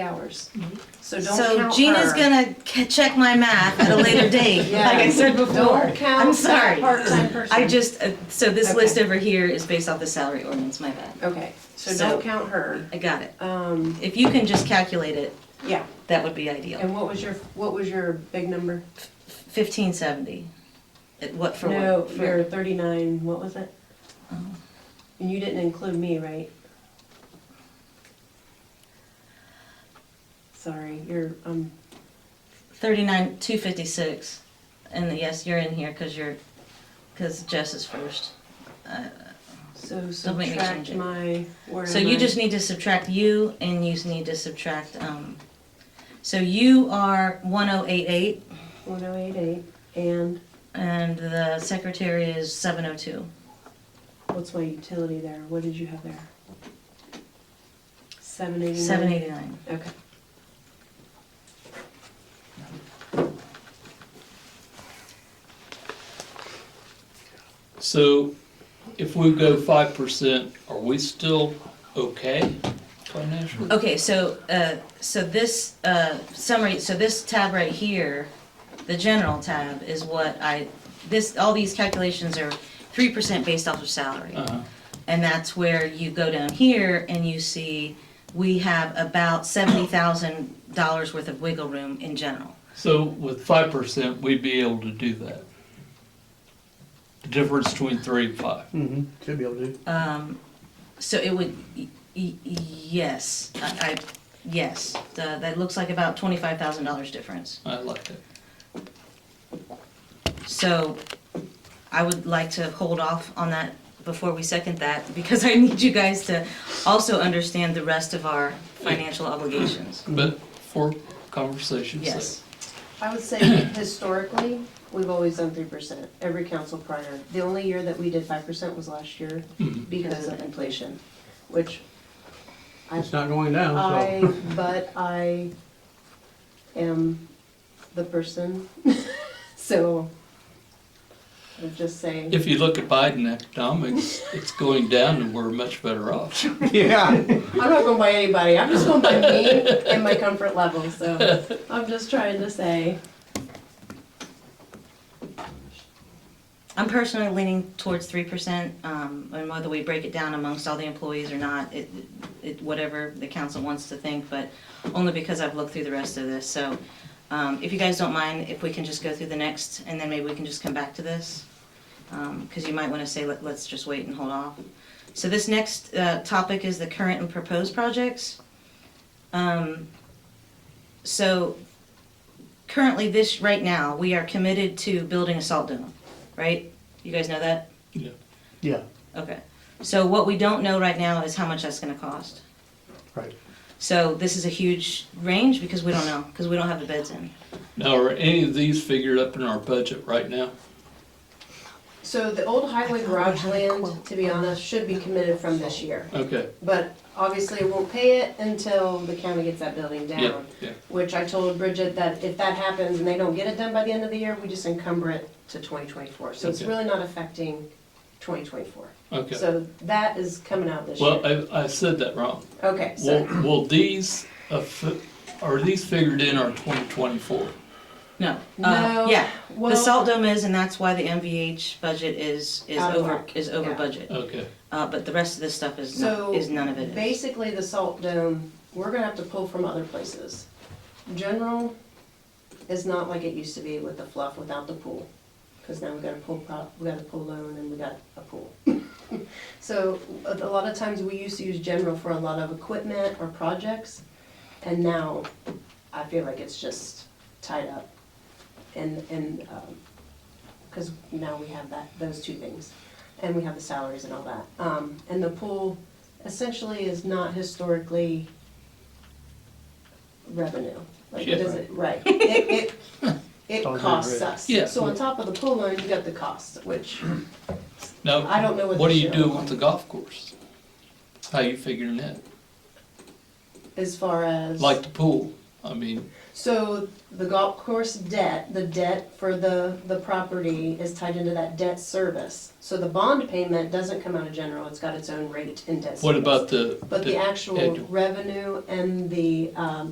hours. Mm-hmm. So don't count So Gina's her. gonna c- check my math at a later date, Yeah. like I said before. Don't count I'm sorry. that part-time person. I just, uh, so this Okay. list over here is based off the salary ordinance, my bad. Okay, so So- don't count her. I got it. Um, If you can just calculate it, yeah, that would be ideal. and what was your, what was your big number? Fifteen seventy. What for? what? No, For- your thirty-nine, what was it? Oh. And you didn't include me, right? Sorry, you're, um, Thirty-nine, two fifty-six, and yes, you're in here because you're, because Jess is first. Uh, so Don't make me subtract change it. my, where So am you I? just need to subtract you, and you just need to subtract, um, so you are one oh eight eight, One oh eight eight, and and the secretary is seven oh two. what's my utility there? What did you have there? Seven eighty-nine? Seven eighty-nine. Okay. So if we go five percent, are we still okay financially? Okay, so, uh, so this, uh, summary, so this tab right here, the general tab is what I, this, all these calculations are three percent based off of salary. Uh-huh. And that's where you go down here and you see, we have about seventy thousand dollars worth of wiggle room in general. So with five percent, we'd be able to do that. The difference between three and five. Mm-hmm. Should be able to. Um, so it would, y- y- yes, I, I, yes, The- that looks like about twenty-five thousand dollars difference. I like that. So I would like to hold off on that before we second that, because I need you guys to also understand the rest of our financial obligations. Mm-hmm. But for conversation's sake. Yes, I would say historically, we've always done three percent, every council prior. The only year that we did five percent was last year Mhm. because of inflation, which I, It's not going down, so. I, but I am the person, so I'm just saying. If you look at Biden economics, it's going down and we're much better off. Yeah. I'm not going by anybody, I'm just going by me and my comfort level, so I'm just trying to say. I'm personally leaning towards three percent, um, and whether we break it down amongst all the employees or not, it, it, whatever the council wants to think, but only because I've looked through the rest of this, so, um, if you guys don't mind, if we can just go through the next, and then maybe we can just come back to this, um, cause you might wanna say, let, let's just wait and hold off. So this next, uh, topic is the current and proposed projects. Um, so, currently this, right now, we are committed to building a salt dome, right? You guys know that? Yeah. Yeah. Okay. So what we don't know right now is how much that's gonna cost. Right. So this is a huge range because we don't know, because we don't have the bids in. Now, are any of these figured up in our budget right now? So the old highway garage had a land, quote. to be honest, should be committed from this year. Okay, But obviously, we won't pay it until the county gets that building yeah, down. yeah. Which I told Bridget that if that happens and they don't get it done by the end of the year, we just encumber it to twenty twenty-four. So it's Okay. really not affecting twenty twenty-four. Okay. So that is coming out this Well, year. I, I said that wrong. Okay, Will, so will these, affi- are these figured in our twenty twenty-four? No. Uh, No, Yeah, well, the salt dome is, and that's why the MVH budget is, is Out of over, whack. is over Yeah. budget. Okay, Uh, but the rest of this stuff is, So, not- is none of it is. basically, the salt dome, we're gonna have to pull from other places. General is not like it used to be with the fluff without the pool, because now we got a pool prop, we got a pool loan and we got a pool. So a a lot of times we used to use general for a lot of equipment or projects, and now I feel like it's just tied up. And, and, um 'cause because now we have that, those two things, and we have the salaries and all that. Um, and the pool essentially is not historically revenue. Like it Yeah. doesn't, right, it, it, it Don't do costs it. us. Yeah. So on top of the pool loan, you got the cost, which I now, don't know what. what do this you year do will with the look golf course? How you figuring that? like. As far as. Like the pool, I mean, So the golf course debt, the debt for the, the property is tied into that debt service. So the bond payment doesn't come out of general, it's got its own rate in debt service. what about the? But the actual annual? revenue and the, um,